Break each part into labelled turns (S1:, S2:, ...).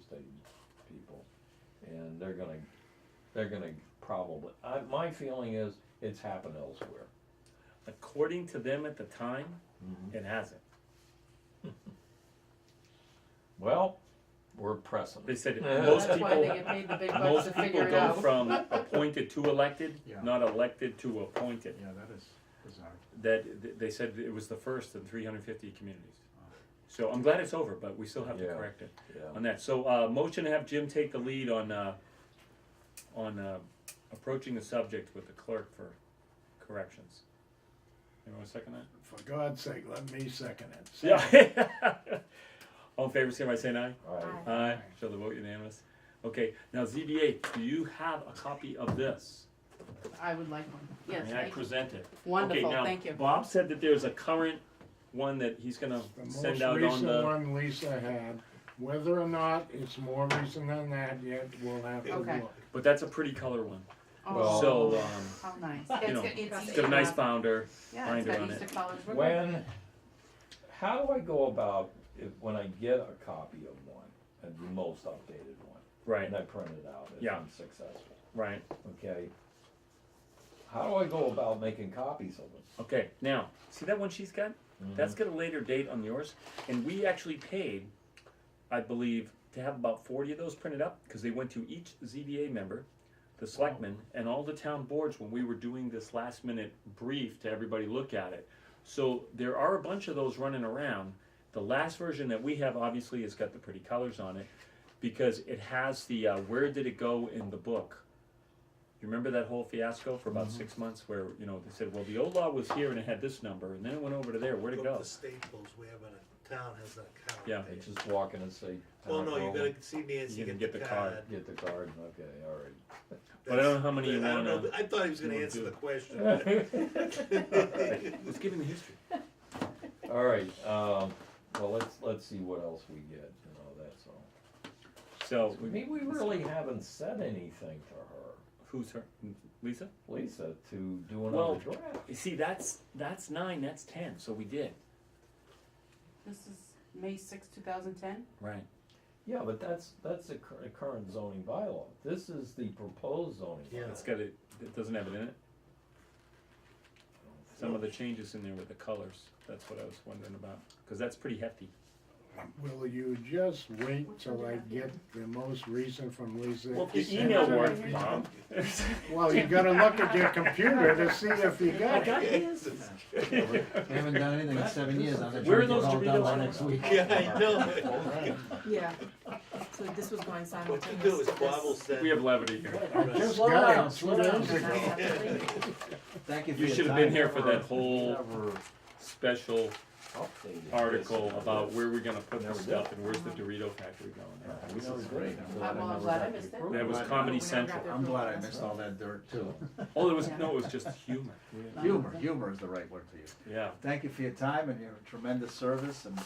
S1: estate people. And they're gonna, they're gonna probably, I, my feeling is it's happened elsewhere.
S2: According to them at the time, it hasn't.
S1: Well, we're pressing.
S2: They said
S1: Yeah.
S2: most
S3: That's why they
S2: people,
S3: get paid the big bucks to
S2: most people
S3: figure it
S2: go
S3: out.
S2: from appointed to elected,
S4: Yeah.
S2: not elected to appointed.
S4: Yeah, that is bizarre.
S2: That, th- they said it was the first in three hundred fifty communities. So I'm glad it's over, but we still have to
S1: Yeah.
S2: correct it
S1: Yeah.
S2: on that. So, uh, motion to have Jim take the lead on, uh, on, uh, approaching the subject with the clerk for corrections. Anyone wanna second that?
S5: For God's sake, let me second it.
S2: Yeah. All in favor, say by saying aye.
S1: All right.
S2: Aye. Show the vote unanimous. Okay, now ZBA, do you have a copy of this?
S3: I would like one. Yes,
S2: May I
S3: thank you.
S2: present it?
S3: Wonderful,
S2: okay, now,
S3: thank you.
S2: Bob said that there's a current one that he's gonna
S5: The
S2: send
S5: most
S2: out on
S5: recent
S2: the.
S5: one Lisa had, whether or not it's more recent than that yet, we'll have to
S3: Okay.
S5: look.
S2: But that's a pretty color one.
S1: Well-
S3: Oh,
S2: So, um,
S3: How nice.
S2: you know,
S3: it's
S2: it's got a nice
S3: got-
S2: founder.
S3: Yeah, it's
S2: binder
S3: got
S2: on
S3: Easter
S2: it.
S3: colors. We're good.
S1: When, how do I go about if, when I get a copy of one, and the most updated one,
S2: Right,
S1: and I print it out if
S2: Yeah.
S1: I'm successful,
S2: right.
S1: okay? How do I go about making copies of it?
S2: Okay, now, see that one she's got? That's got a later date on yours, and we actually paid, I believe, to have about forty of those printed up, because they went to each ZBA member, the selectmen, and all the town boards when we were doing this last minute brief to everybody look at it. So there are a bunch of those running around. The last version that we have obviously has got the pretty colors on it, because it has the, uh, where did it go in the book? You remember that whole fiasco for about six months where, you know, they said, well, the old law was here and it had this number, and then it went over to there, where'd it
S6: Look
S2: go?
S6: The Staples, wherever the town has that card.
S2: Yeah.
S1: They just walk in and say.
S6: Well, no, you
S1: "Hello,
S6: gotta see Nancy,
S2: You can
S6: get the card.
S1: Get the card, okay, all
S2: But I don't know how many
S6: That's-
S2: you
S6: I don't know,
S2: wanna-
S6: but I thought he was gonna
S2: you wanna
S6: answer
S2: do.
S6: the question.
S1: right.
S2: Let's give him the history.
S1: All right, um, well, let's, let's see what else we get, you know, that's all.
S2: So,
S1: I
S2: we-
S1: mean, we really haven't said anything to her,
S2: who's her? Lisa?
S1: Lisa, to do
S2: Well-
S1: another draft.
S2: You see, that's, that's nine, that's ten, so we did.
S3: This is May sixth, two thousand ten?
S2: Right.
S1: Yeah, but that's, that's the cur- the current zoning bylaw. This is the proposed zoning. bylaw.
S6: Yeah.
S2: It's got it, it doesn't have it in it. Some of the changes in there with the colors, that's what I was wondering about, cause that's pretty hefty.
S5: Will you just wait till I get the most recent from Lisa?
S2: Well, if your
S5: and
S2: email
S5: send it
S2: works,
S5: to me?
S2: Bob.
S5: Well, you gotta look at your computer to see if you
S2: I
S5: got it.
S2: got his.
S4: I haven't done anything in seven years, I'm gonna
S2: Where
S4: try
S2: are those
S4: to get it all done
S2: Doritos?
S4: by next week.
S6: Yeah, I know.
S7: Yeah, so this was going
S6: What you do
S7: simultaneous.
S6: is
S7: with this.
S6: Bob will send.
S2: We have levity here.
S5: I just
S4: Slow
S5: got
S4: down,
S5: it
S4: slow
S5: two
S4: down.
S5: days ago.
S4: Thank you for
S2: You
S4: your time.
S2: should have been here for that whole
S1: Never
S2: special
S1: updated this.
S2: article about where we're gonna put the
S1: Never
S2: stuff and where's the Dorito factory
S1: Yeah,
S2: going.
S1: I know, it's great.
S3: I'm all
S1: never
S3: glad I
S1: got the
S3: missed it.
S1: approval.
S2: That was Comedy Central.
S4: I'm glad I missed all that dirt too.
S2: Oh, there was, no, it was just humor.
S4: Humor, humor is the right word for you.
S2: Yeah,
S4: Thank you for your time and your tremendous service and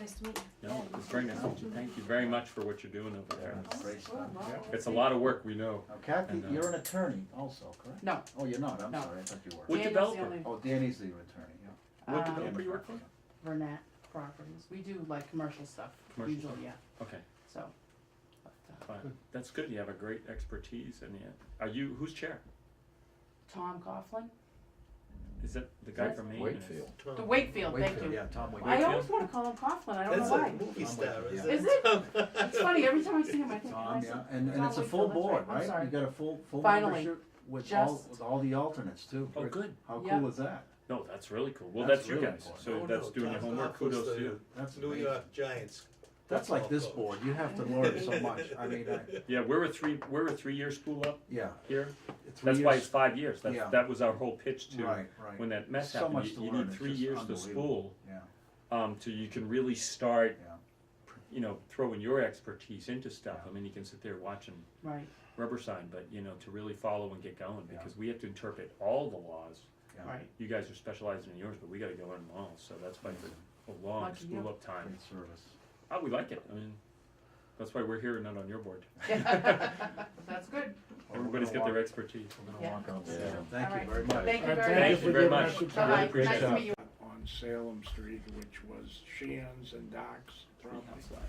S7: Nice to meet you.
S2: no, it's very nice. Thank you very much for what you're doing over there.
S4: great stuff.
S2: It's a lot of work, we know.
S4: Now Kathy,
S2: And, uh,
S4: you're an attorney also, correct?
S3: No.
S4: Oh, you're not, I'm
S3: No.
S4: sorry, I thought you were.
S2: What
S3: Daniel's the
S2: developer?
S3: only-
S4: Oh, Danny's the attorney, yeah.
S2: What
S3: Um,
S2: developer you work for?
S3: Vernat Properties. We do like commercial stuff,
S2: Commercial
S3: usually, yeah,
S2: Okay,
S3: so. uh,
S2: fine. That's good. You have a great expertise and you, are you, who's chair?
S3: Tom Coughlin,
S2: Is that the guy from Maine?
S1: Wakefield.
S3: the Wakefield, thank
S4: Wakefield,
S3: you.
S4: yeah, Tom Wakefield.
S3: I always wanna call him Coughlin, I don't know
S6: That's
S3: why.
S6: like movie star, is
S4: Yeah.
S6: it?
S3: Is it? It's funny, every time I see him, I think,
S4: Tom,
S3: I
S4: yeah, and, and
S3: Tom
S4: it's a
S3: Wakefield,
S4: full
S3: that's right.
S4: board,
S3: I'm
S4: right?
S3: sorry.
S4: You got a full, full
S3: Finally.
S4: membership with all,
S3: Just-
S4: with all the alternates too.
S2: Oh, good.
S4: How
S3: Yeah.
S4: cool is that?
S2: No, that's really cool. Well,
S4: That's
S2: that's you
S4: really
S2: guys.
S4: important.
S2: So
S6: Oh,
S2: that's
S6: no,
S2: doing your
S6: Tom
S2: homework.
S6: Coughl's
S2: Kudos
S6: the
S2: to you.
S4: That's
S6: New
S4: amazing.
S6: York Giants.
S4: That's like this
S6: football
S4: board, you have to learn so much, I mean, I,
S2: Yeah, we're a three, we're a three-year school up
S4: yeah.
S2: here.
S4: three
S2: That's why
S4: years-
S2: it's five years. That's,
S4: Yeah.
S2: that was our whole pitch to,
S4: Right, right.
S2: when that mess
S4: So
S2: happened,
S4: much
S2: you,
S4: to
S2: you
S4: learn,
S2: need
S4: it's
S2: three
S4: just
S2: years to
S4: unbelievable.
S2: spool,
S4: Yeah,
S2: um, to, you can really start,
S4: yeah.
S2: you know, throwing your expertise into stuff. I mean, you can sit there watching
S3: right,
S2: rubber sign, but, you know, to really follow and get going,
S4: Yeah.
S2: because we have to interpret all the laws.
S4: Yeah.
S3: right.
S2: You guys are specializing in yours, but we gotta go learn them all, so that's why it's a- a long
S3: Lucky you.
S2: school up time.
S4: Great service.
S2: Oh, we like it, I mean, that's why we're here and not on your board.
S3: That's good.
S2: Everybody's got their expertise.
S4: We're gonna
S3: Yeah.
S4: walk out
S1: Yeah.
S4: there.
S3: All
S4: Thank
S3: right.
S4: you very much.
S3: Thank you
S5: I
S3: very much.
S2: you very much.
S3: Bye-bye.
S2: Really
S3: Nice
S2: appreciate
S3: to
S2: it.
S3: meet you.
S5: on Salem Street, which was Shan's and Doc's property.